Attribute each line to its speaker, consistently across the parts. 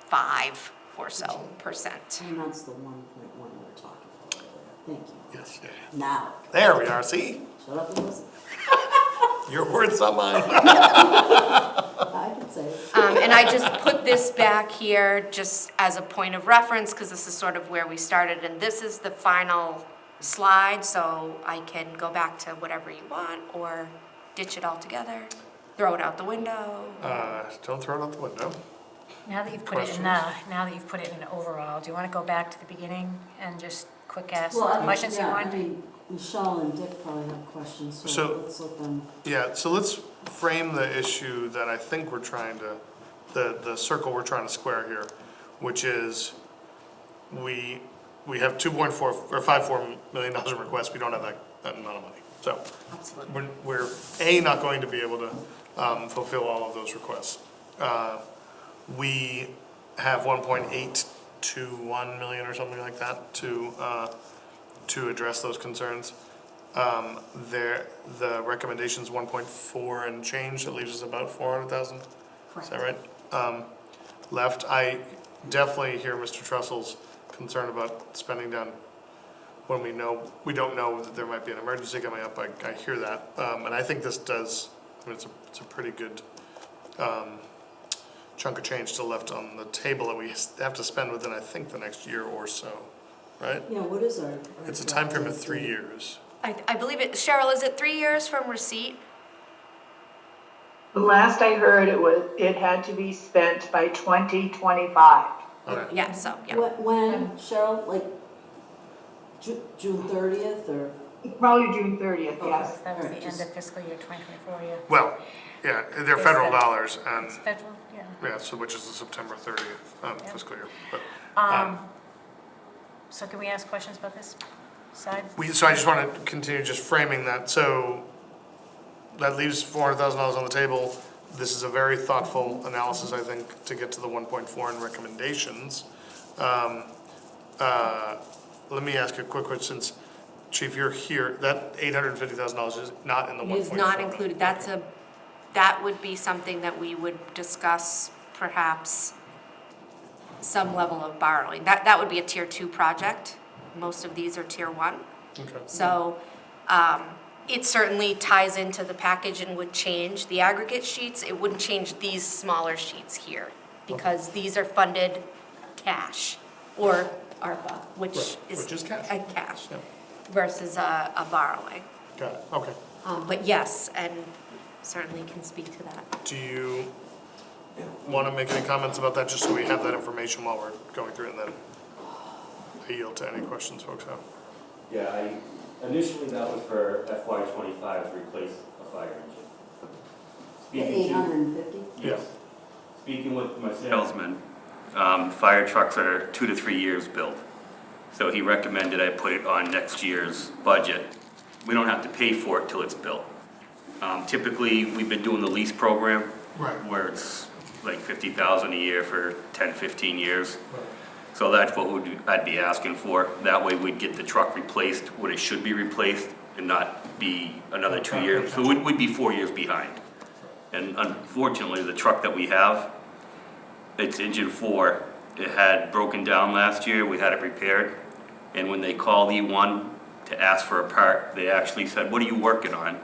Speaker 1: forty-five or so percent.
Speaker 2: And that's the one point one we were talking about. Thank you.
Speaker 3: Yes, yeah.
Speaker 2: Now,
Speaker 3: There we are, see?
Speaker 2: shut up and listen.
Speaker 3: You're worth something.
Speaker 2: I can say it.
Speaker 1: Um, and I just put this back here just as a point of reference, because this is sort of where we started, and this is the final slide, so I can go back to whatever you want, or ditch it altogether, throw it out the window.
Speaker 3: Uh, don't throw it out the window.
Speaker 4: Now that you've put it in, uh, now that you've put it in overall, do you want to go back to the beginning and just quick ask the
Speaker 2: Well, I mean,
Speaker 4: questions you
Speaker 2: yeah, I
Speaker 4: want?
Speaker 2: mean, Michelle and Dick probably have questions,
Speaker 3: So-
Speaker 2: so let's let them.
Speaker 3: Yeah, so let's frame the issue that I think we're trying to, the, the circle we're trying to square here, which is we, we have two point four, or five four million dollars in requests, we don't have that, that amount of money. So
Speaker 1: Absolutely.
Speaker 3: we're, we're, A, not going to be able to, um, fulfill all of those requests. Uh, we have one point eight to one million or something like that to, uh, to address those concerns. Um, there, the recommendation's one point four and change, that leaves us about four hundred thousand, is that right? Um, left, I definitely hear Mr. Trussell's concern about spending down when we know, we don't know that there might be an emergency coming up, I, I hear that. Um, and I think this does, I mean, it's a, it's a pretty good, um, chunk of change still left on the table that we have to spend within, I think, the next year or so, right?
Speaker 2: Yeah, what is our?
Speaker 3: It's a time frame of three years.
Speaker 1: I, I believe it, Cheryl, is it three years from receipt?
Speaker 5: Last I heard, it was, it had to be spent by 2025.
Speaker 3: Okay.
Speaker 1: Yeah, so, yeah.
Speaker 2: Wh- When, Cheryl, like Ju- June thirtieth or?
Speaker 5: Probably June 30th, yes.
Speaker 4: That was the
Speaker 2: Alright,
Speaker 4: end
Speaker 2: just-
Speaker 4: of fiscal year 2024, yeah.
Speaker 3: Well, yeah, they're federal dollars and,
Speaker 4: Federal, yeah.
Speaker 3: yeah, so which is the September thirtieth, um, fiscal year. But
Speaker 4: Um, So can we ask questions about this side?
Speaker 3: we, so I just wanna continue just framing that, so that leaves four hundred thousand dollars on the table. This is a very thoughtful analysis, I think, to get to the one point four and recommendations. Um, uh, let me ask you a quick question, since Chief, you're here, that eight hundred and fifty thousand dollars is not in the
Speaker 1: It
Speaker 3: one point
Speaker 1: is
Speaker 3: four.
Speaker 1: not included, that's a, that would be something that we would discuss perhaps some level of borrowing. That, that would be a tier two project. Most of these are tier one.
Speaker 3: Okay.
Speaker 1: So um, it certainly ties into the package and would change the aggregate sheets. It wouldn't change these smaller sheets here because these are funded cash or ARPA, which
Speaker 3: Right,
Speaker 1: is.
Speaker 3: which is cash.
Speaker 1: A cash
Speaker 3: Yeah.
Speaker 1: versus a, a borrowing.
Speaker 3: Got it, okay.
Speaker 1: Um, But yes, and certainly can speak to that.
Speaker 3: Do you want to make any comments about that, just so we have that information while we're going through it, and then I yield to any questions folks have?
Speaker 6: Yeah, I, initially that was for FY twenty-five to replace a fire engine.
Speaker 2: The
Speaker 6: Speaking to-
Speaker 2: eight hundred and fifty?
Speaker 6: Yes. Speaking with my salesman, um, fire trucks are two to three years built. So he recommended I put it on next year's budget. We don't have to pay for it till it's built. Um, typically, we've been doing the lease program.
Speaker 3: Right.
Speaker 6: Where it's like fifty thousand a year for 10, 15 years. So that's what would, I'd be asking for. That way we'd get the truck replaced when it should be replaced and not be another two years. So we'd, we'd be four years behind. And unfortunately, the truck that we have, it's engine four. It had broken down last year, we had it repaired. And when they called E1 to ask for a part, they actually said, what are you working on?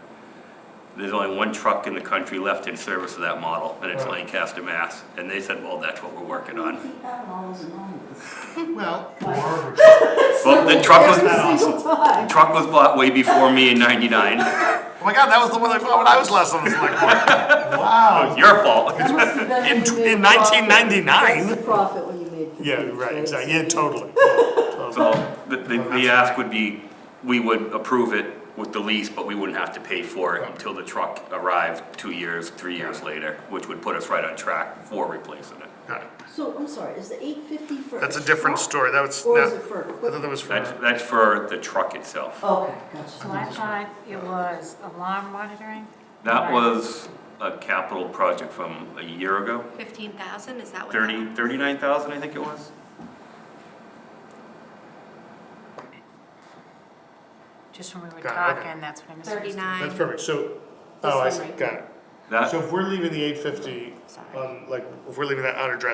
Speaker 6: There's only one truck in the country left in service of that model, and it's
Speaker 3: Right.
Speaker 6: Lancaster, Mass. And they said, well, that's what we're working on.
Speaker 2: Keep having all those anomalies.
Speaker 3: Well. Oh
Speaker 6: Well, the truck was,
Speaker 2: Every
Speaker 6: the
Speaker 2: single time.
Speaker 6: truck was bought way before me in ninety-nine.
Speaker 3: Oh my god, that was the one I bought when I was last on the select board. Wow.
Speaker 6: Your fault.
Speaker 2: That must have been
Speaker 3: In-
Speaker 2: when you made
Speaker 3: in
Speaker 2: the profit.
Speaker 3: 1999.
Speaker 2: That's the profit when you made. the
Speaker 3: Yeah,
Speaker 2: huge
Speaker 3: right,
Speaker 2: raise.
Speaker 3: exactly, yeah, totally.
Speaker 6: So the, the, the ask would be, we would approve it with the lease, but we wouldn't have to pay for it until the truck arrived two years, three years later, which would put us right on track for replacing it.
Speaker 3: Got it.
Speaker 2: So, I'm sorry, is the eight fifty for?
Speaker 3: That's a different
Speaker 2: truck,
Speaker 3: story, that was,
Speaker 2: Or is
Speaker 3: no,
Speaker 2: it for
Speaker 3: I thought
Speaker 2: equipment?
Speaker 3: that was
Speaker 6: That's,
Speaker 3: for,
Speaker 6: that's for the truck itself.
Speaker 2: Okay,
Speaker 4: So
Speaker 2: gotcha.
Speaker 4: I thought it was alarm monitoring?
Speaker 6: That
Speaker 4: Right.
Speaker 6: was a capital project from a year ago,
Speaker 1: Fifteen thousand, is that what? that
Speaker 6: thirty,
Speaker 1: was?
Speaker 6: thirty-nine thousand, I think it was.
Speaker 4: Just when we were
Speaker 3: Got it, okay.
Speaker 4: talking, that's what I missed.
Speaker 3: that's
Speaker 1: Thirty-nine,
Speaker 3: perfect, so,
Speaker 1: This
Speaker 3: oh, I
Speaker 1: one
Speaker 3: see,
Speaker 1: right
Speaker 3: got it.
Speaker 6: That,
Speaker 3: So if we're leaving the eight fifty,
Speaker 1: sorry.
Speaker 3: um, like, if we're leaving that unaddressed,